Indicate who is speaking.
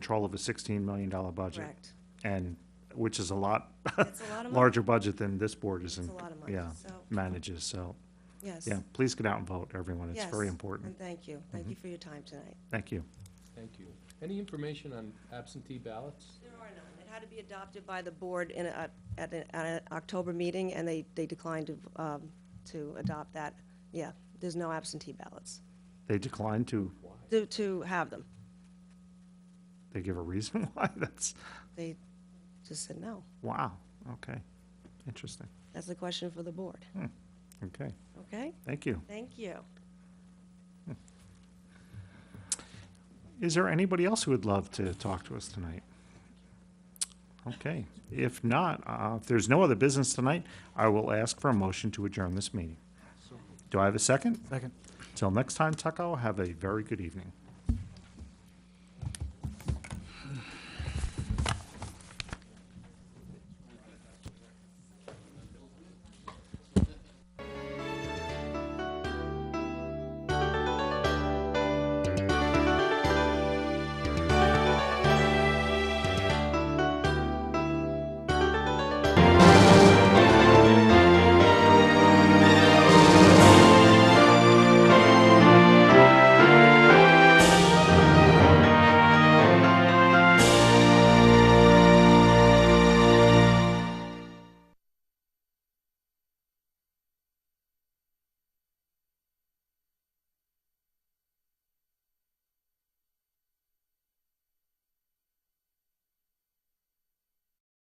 Speaker 1: control of a $16 million budget.
Speaker 2: Correct.
Speaker 1: And, which is a lot,
Speaker 2: It's a lot of money.
Speaker 1: larger budget than this board is,
Speaker 2: It's a
Speaker 1: in-
Speaker 2: lot of money,
Speaker 1: yeah,
Speaker 2: so-
Speaker 1: manages, so,
Speaker 2: Yes.
Speaker 1: yeah, please get out and vote, everyone, it's very
Speaker 2: Yes,
Speaker 1: important. Mm-hmm.
Speaker 2: And thank you. Thank you for your time tonight.
Speaker 1: Thank you.
Speaker 3: Thank you. Any information on absentee ballots?
Speaker 2: There are none. It had to be adopted by the board in, a- at, a- at an October meeting, and they, they declined to, um, to adopt that. Yeah, there's no absentee ballots,
Speaker 1: They declined to,
Speaker 2: to, to have them.
Speaker 1: they give a reason why, that's,
Speaker 2: They just said no.
Speaker 1: wow, okay, interesting,
Speaker 2: That's the question for the board,
Speaker 1: okay,
Speaker 2: okay?
Speaker 1: thank you.
Speaker 2: Thank you.
Speaker 1: Is there anybody else who would love to talk to us tonight? Okay, if not, uh, if there's no other business tonight, I will ask for a motion to adjourn this meeting. Do I have a second?
Speaker 4: Second.
Speaker 1: Till next time, Tucko, have a very good evening.